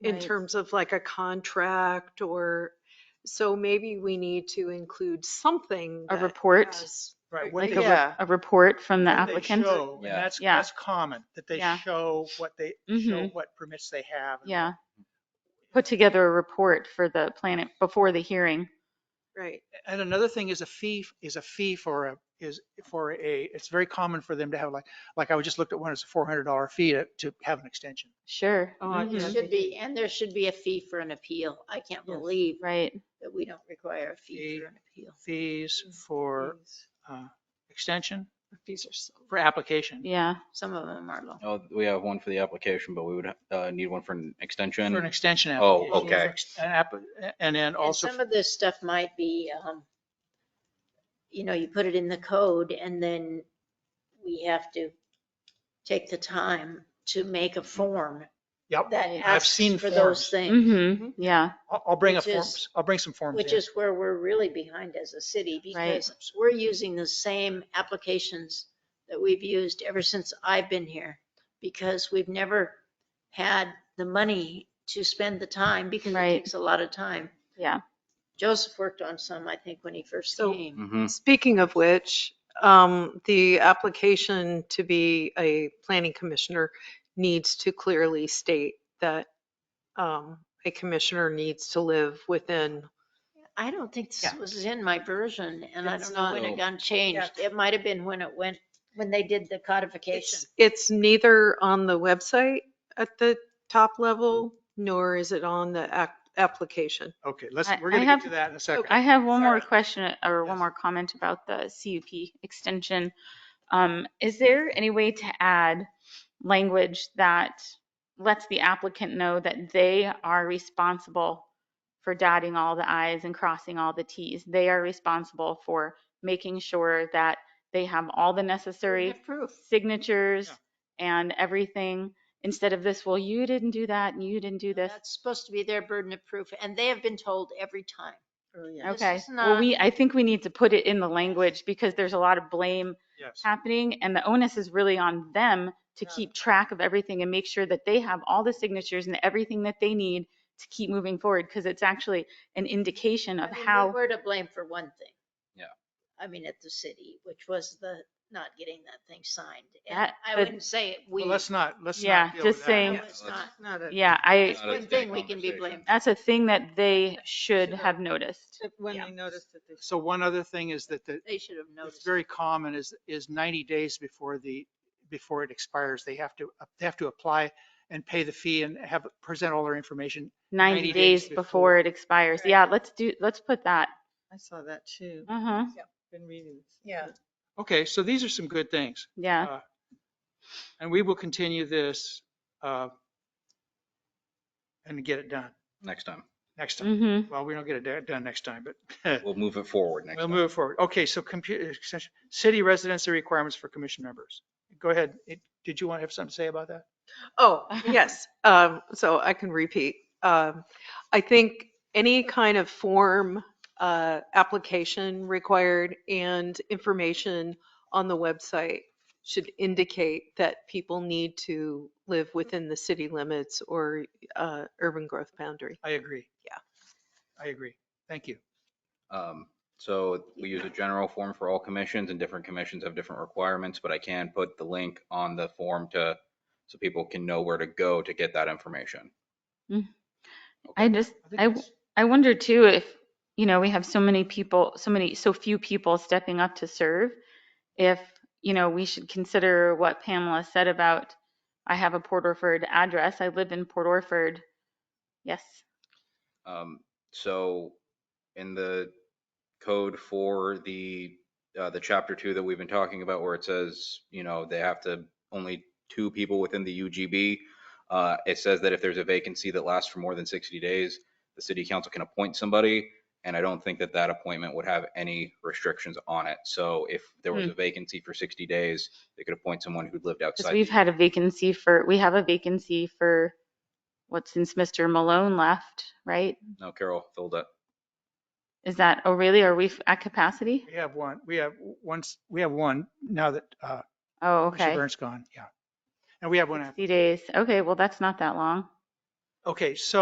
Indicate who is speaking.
Speaker 1: in
Speaker 2: Right.
Speaker 1: terms of like a contract or, so maybe we need to include something.
Speaker 2: A
Speaker 1: that
Speaker 2: report?
Speaker 1: has-
Speaker 3: Right. what
Speaker 2: Like
Speaker 3: they-
Speaker 2: a, re-
Speaker 3: what
Speaker 2: a report from the
Speaker 3: they
Speaker 2: applicant?
Speaker 3: show, and
Speaker 4: Yeah.
Speaker 3: That's,
Speaker 2: Yeah.
Speaker 3: that's common, that they
Speaker 2: Yeah.
Speaker 3: show what they, show
Speaker 2: Mhm.
Speaker 3: what permits they have. and
Speaker 2: Yeah.
Speaker 3: Mm-hmm.
Speaker 2: Put together a report for the planet before the hearing.
Speaker 1: Right,
Speaker 3: And another thing is a fee, is a fee for a, is for a, it's very common for them to have like, like I just looked at one, it's a four hundred dollar fee to, to have an extension.
Speaker 2: Sure.
Speaker 1: Oh, I
Speaker 2: Mhm.
Speaker 1: Yeah.
Speaker 5: There should be, and there should be a fee for an appeal. I can't believe
Speaker 2: Right.
Speaker 5: that we don't require a fee
Speaker 3: Fee.
Speaker 5: for an appeal.
Speaker 3: Fees for,
Speaker 1: Fees.
Speaker 3: uh, extension,
Speaker 1: fees are so.
Speaker 3: for application.
Speaker 2: Yeah.
Speaker 5: Some of them are low.
Speaker 4: Oh, we have one for the application, but we would uh, need one for an extension.
Speaker 3: For an extension. application,
Speaker 4: Oh,
Speaker 3: for
Speaker 4: okay.
Speaker 3: ex- an app- And then
Speaker 5: And
Speaker 3: also,
Speaker 5: some of this stuff might be, um, you know, you put it in the code and then we have to take the time to make a form
Speaker 3: yep,
Speaker 5: that
Speaker 2: I've
Speaker 5: asks
Speaker 3: seen
Speaker 5: for those
Speaker 3: forms. Mm-hmm.
Speaker 5: things,
Speaker 2: hmm Yeah.
Speaker 3: I'll, I'll bring a
Speaker 5: which is-
Speaker 3: forms, I'll bring some forms
Speaker 5: which
Speaker 3: in.
Speaker 5: is where we're really behind as a city
Speaker 2: Right.
Speaker 5: because we're using the same applications that we've used ever since I've been here because we've never had the money to spend the time because it
Speaker 2: Right.
Speaker 5: takes a lot of time.
Speaker 2: Yeah.
Speaker 5: Joseph worked on some, I think, when he first
Speaker 1: So-
Speaker 5: came.
Speaker 4: Mhm.
Speaker 1: Speaking of which, um, the application to be a planning commissioner needs to clearly state that, um, a commissioner needs to live within
Speaker 5: I don't think this
Speaker 3: Yeah.
Speaker 5: was in my version and I
Speaker 1: It's
Speaker 5: don't know when
Speaker 4: not.
Speaker 5: it got changed. It might have been when it went, when they did the codification.
Speaker 1: It's, it's neither on the website at the top level, nor is it on the ac- application.
Speaker 3: Okay, let's,
Speaker 2: I-
Speaker 3: we're
Speaker 2: I
Speaker 3: gonna
Speaker 2: have-
Speaker 3: get to that in a second.
Speaker 2: I have one more
Speaker 3: Sorry.
Speaker 2: question or one
Speaker 3: Yes.
Speaker 2: more comment about the CUP extension. Um, is there any way to add language that lets the applicant know that they are responsible for dotting all the i's and crossing all the t's? They are responsible for making sure that they have all the necessary
Speaker 5: Proof.
Speaker 2: signatures and everything, instead of this, well, you didn't do that and you didn't do this.
Speaker 5: That's supposed to be their burden of proof, and they have been told every time. This
Speaker 2: Okay,
Speaker 5: is
Speaker 2: well,
Speaker 5: not-
Speaker 2: we, I think we need to put it in the language because there's a lot of blame
Speaker 3: Yes.
Speaker 2: happening and the onus is really on them to
Speaker 5: Yeah.
Speaker 2: keep track of everything and make sure that they have all the signatures and everything that they need to keep moving forward, because it's actually an indication of
Speaker 5: I mean, we
Speaker 2: how,
Speaker 5: We're to blame for one thing.
Speaker 4: Yeah.
Speaker 5: I mean, at the city, which was the not getting that thing signed. And
Speaker 2: That-
Speaker 5: I
Speaker 2: but-
Speaker 5: wouldn't say it, we,
Speaker 3: Well,
Speaker 5: no,
Speaker 3: let's not, let's
Speaker 2: Yeah,
Speaker 3: not deal with
Speaker 2: just
Speaker 3: that.
Speaker 2: saying-
Speaker 4: Yeah,
Speaker 5: it's
Speaker 4: let's-
Speaker 5: not.
Speaker 1: Not a-
Speaker 2: yeah, I,
Speaker 5: It's
Speaker 4: Not a
Speaker 5: one
Speaker 4: big
Speaker 5: thing we can be
Speaker 4: conversation.
Speaker 5: blamed.
Speaker 2: that's a thing that they should
Speaker 5: Sure.
Speaker 2: have noticed.
Speaker 1: When
Speaker 5: Yeah.
Speaker 1: they notice that they.
Speaker 3: So one other thing is that the,
Speaker 5: They should have
Speaker 3: it's
Speaker 5: noticed.
Speaker 3: very common is, is 90 days before the, before it expires, they have to, they have to apply and pay the fee and have, present all their information.
Speaker 2: 90 days before it expires.
Speaker 5: Right.
Speaker 2: Yeah, let's do, let's put that.
Speaker 6: I saw that too.
Speaker 2: Uh-huh,
Speaker 6: Been reading this. Yeah.
Speaker 3: Okay, so these are some good things.
Speaker 2: yeah.
Speaker 3: Uh, And we will continue this uh, and get it done
Speaker 4: Next time.
Speaker 3: next time.
Speaker 2: Mm-hmm,
Speaker 3: Well, we don't get it da- done next time, but
Speaker 4: We'll move it forward next
Speaker 3: we'll
Speaker 4: time.
Speaker 3: move forward. Okay, so computer, city residency requirements for commission members. Go ahead. It- Did you want to have something to say about that?
Speaker 1: Oh, yes. Um, so I can repeat. Um, I think any kind of form, uh, application required and information on the website should indicate that people need to live within the city limits or, uh, urban growth boundary.
Speaker 3: I agree.
Speaker 1: Yeah.
Speaker 3: I agree. Thank you.
Speaker 4: Um, So we use a general form for all commissions and different commissions have different requirements, but I can put the link on the form to, so people can know where to go to get that information.
Speaker 2: I just,
Speaker 3: think
Speaker 2: I, w-
Speaker 3: it's-
Speaker 2: I wonder too if, you know, we have so many people, so many, so few people stepping up to serve. If, you know, we should consider what Pamela said about, I have a Port Orford address, I live in Port Orford. Yes,
Speaker 4: Um, So in the code for the, uh, the chapter two that we've been talking about where it says, you know, they have to, only two people within the UGB. uh, It says that if there's a vacancy that lasts for more than 60 days, the city council can appoint somebody. And I don't think that that appointment would have any restrictions on it. So if there was a vacancy for 60 days, they could appoint someone who lived
Speaker 2: Hmm. because
Speaker 4: outside.
Speaker 2: we've
Speaker 4: the-
Speaker 2: had a vacancy for, we have a vacancy for, what, since Mr. Malone left, right?
Speaker 4: No, Carol filled it.
Speaker 2: Is that, oh really, are we f- at capacity?
Speaker 3: We have one, we have once, we have one now that uh,
Speaker 2: Oh,
Speaker 3: Mr.
Speaker 2: okay.
Speaker 3: Burns gone, yeah. And we have one, after.
Speaker 2: 60 days, okay, well, that's not that long.
Speaker 3: Okay, so